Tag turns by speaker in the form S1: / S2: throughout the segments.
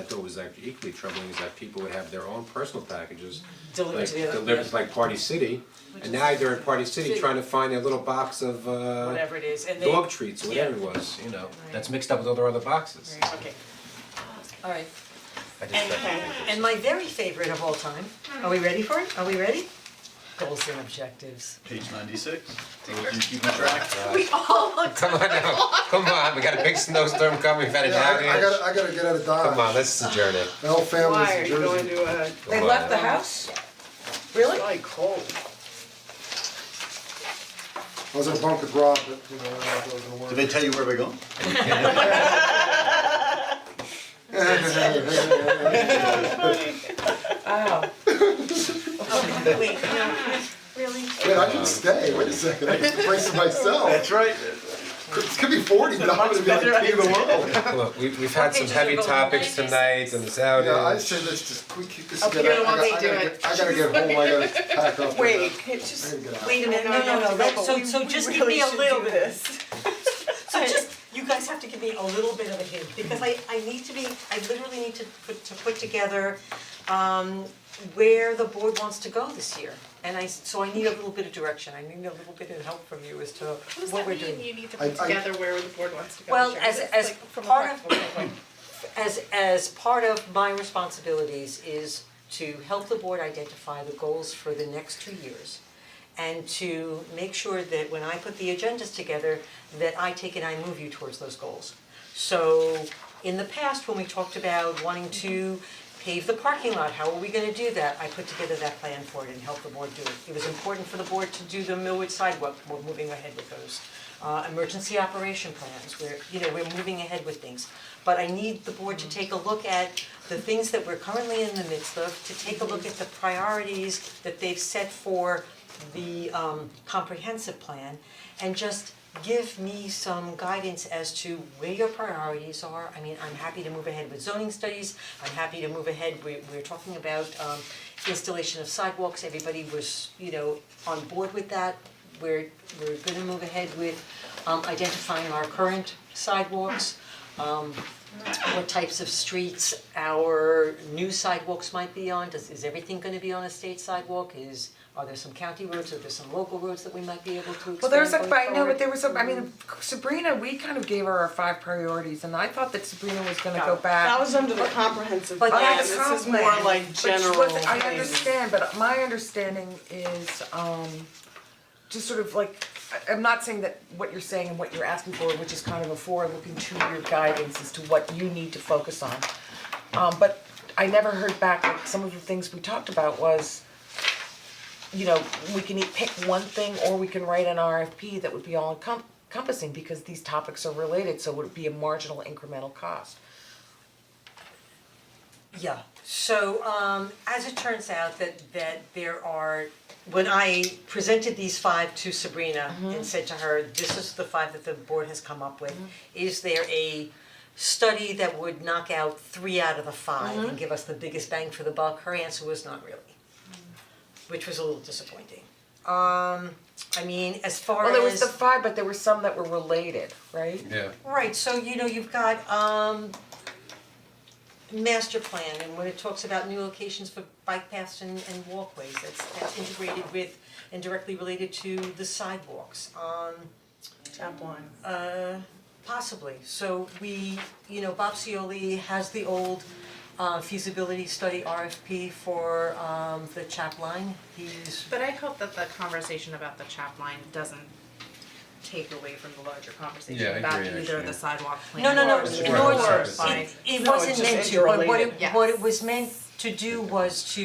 S1: I thought was actually equally troubling is that people would have their own personal packages.
S2: Delivered
S1: like,
S2: to the other-
S1: Delivered to,
S2: yeah.
S1: like Party City, and now they're in Party City trying to find their little box of uh.
S2: whatever it is, and they.
S1: Dog treats, or whatever it was, you know, that's mixed up with all their other boxes.
S2: Yeah, okay,
S3: Alright,
S1: I just
S2: and,
S1: thought-
S2: and
S3: my very favorite of all time, are we ready for it? Are we ready? Goals and objectives.
S4: Page ninety-six, so if you keep track.
S1: Come on now, come on, we got a big snowstorm coming, we've had an
S5: Yeah, I, I gotta,
S1: outage.
S5: I gotta get out of Dodge.
S1: Come on, let's adjourn it.
S5: The whole family's
S2: why are
S5: in
S2: you
S5: Jersey.
S2: going to a,
S3: They left the house? Really?
S2: probably cold,
S5: I was in a bunk with Rob, but you know, I thought it was
S4: Did
S5: gonna
S4: they
S5: work.
S4: tell you where we're going?
S2: oh. Wait, no,
S5: Wait, I can stay. Wait a second. I get the place to myself.
S4: right.
S5: It's gonna be forty, but I'm gonna be
S2: Much better
S5: like king of the world.
S1: Look, we we've had some
S3: Okay,
S1: heavy
S3: just-
S1: topics tonight and this outage.
S5: Yeah, uh, I say let's just quick keep this
S2: Okay,
S5: together.
S2: you're the
S5: I
S2: one they
S5: gotta- I
S2: do
S5: gotta get- I gotta get home. I gotta pack up. and, uh,
S2: wait, it
S5: I
S2: just,
S5: gotta get out.
S3: Wait a minute, no,
S2: no,
S3: no, no,
S2: no,
S3: let,
S2: but
S3: so
S2: we-
S3: so
S2: we
S3: just give
S2: really
S3: me a
S2: should
S3: little
S2: do
S3: bit.
S2: this.
S3: So just, you guys have to give me a little bit of a hint, because I I need to be, I literally need to put to put together um where the board wants to go this year. And I, so I need a little bit of direction, I need a little bit of help from you as to
S6: What does
S3: what
S6: that
S3: we're doing.
S6: mean, you need to
S5: I-
S6: put
S5: I-
S6: together where the board wants to go?
S3: Well,
S6: Sharon?
S3: as-
S6: It's
S3: as
S6: like from a
S3: part
S6: practical standpoint.
S3: as as part of my responsibilities is to help the board identify the goals for the next two years. And to make sure that when I put the agendas together, that I take and I move you towards those goals. So in the past, when we talked about wanting to pave the parking lot, how are we gonna do that? I put together that plan for it and helped the board do it. It was important for the board to do the Millwood sidewalk, we're moving ahead with those. Uh, emergency operation plans, we're, you know, we're moving ahead with things. But I need the board to take a look at the things that we're currently in the midst of, to take a look at the priorities that they've set for the um comprehensive plan and just give me some guidance as to where your priorities are. I mean, I'm happy to move ahead with zoning studies, I'm happy to move ahead, we we're talking about um installation of sidewalks, everybody was, you know, on board with that. We're we're gonna move ahead with um identifying our current sidewalks, um what types of streets our new sidewalks might be on, does, is everything gonna be on a state sidewalk, is, are there some county roads, are there some local roads that we might be able to expand
S7: Well, there's a,
S3: going
S7: but I know,
S3: forward?
S7: but there was a, I
S8: Mm-hmm.
S7: mean, Sabrina, we kind of gave her our five priorities, and I thought that Sabrina was gonna go back.
S8: That was under the comprehensive
S3: But
S8: plan,
S3: that's
S8: this is more like
S7: But she
S8: general
S7: wasn't- I
S8: things.
S7: understand, but my understanding is, um, just sort of like, I, I'm not saying that what you're saying and what you're asking for, which is kind of a forward-looking two-year guidance as to what you need to focus on. Um, but I never heard back, like, some of the things we talked about was, you know, we can eat, pick one thing or we can write an RFP that would be all encom- encompassing because these topics are related, so would it be a marginal incremental cost?
S3: Yeah, so um as it turns out that that there are, when I presented these five to Sabrina
S7: Mm-hmm.
S3: and said to her, this is the five that the board has come up with,
S7: Mm-hmm.
S3: is there a study that would knock out three out of the five
S7: Mm-hmm.
S3: and give us the biggest bang for the buck? Her answer was not really,
S7: Mm.
S3: which was a little disappointing. Um I mean, as far as.
S7: Well, there was the five, but there were some that were related, right?
S1: Yeah.
S3: Right, so you know, you've got um master plan and when it talks about new locations for bike paths and and walkways, that's that's integrated with and directly related to the sidewalks. Um
S8: Chapline.
S3: uh possibly, so we, you know, Bob Cioli has the old uh feasibility study RFP for um the chap line, he's
S6: But I hope that the conversation about the chap line doesn't take away from the larger conversation
S1: Yeah, I
S6: about
S1: agree,
S6: either
S1: actually.
S6: the sidewalk plan
S3: No, no, no,
S6: or
S3: it's-
S6: the
S3: no,
S1: it's-
S6: or
S1: it's-
S6: by-
S3: It it
S8: No, it's
S3: wasn't
S8: just
S3: meant to, but what it
S6: interrelated.
S3: what it
S6: Yes.
S3: was meant to do was to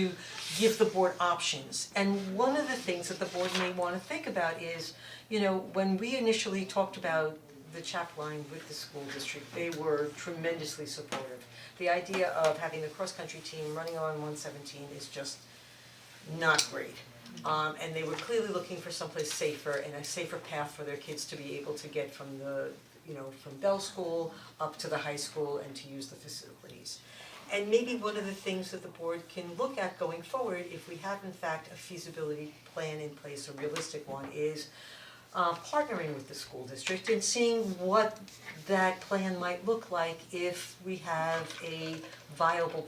S3: give the board options. And one of the things that the board may wanna think about is, you know, when we initially talked about the chap line with the school district, they were tremendously supportive. The idea of having the cross-country team running on one seventeen is just not great. Um and they were clearly looking for someplace safer and a safer path for their kids to be able to get from the, you know, from Bell School up to the high school and to use the facilities. And maybe one of the things that the board can look at going forward, if we have in fact a feasibility plan in place, a realistic one, is uh partnering with the school district and seeing what that plan might look like if we have a viable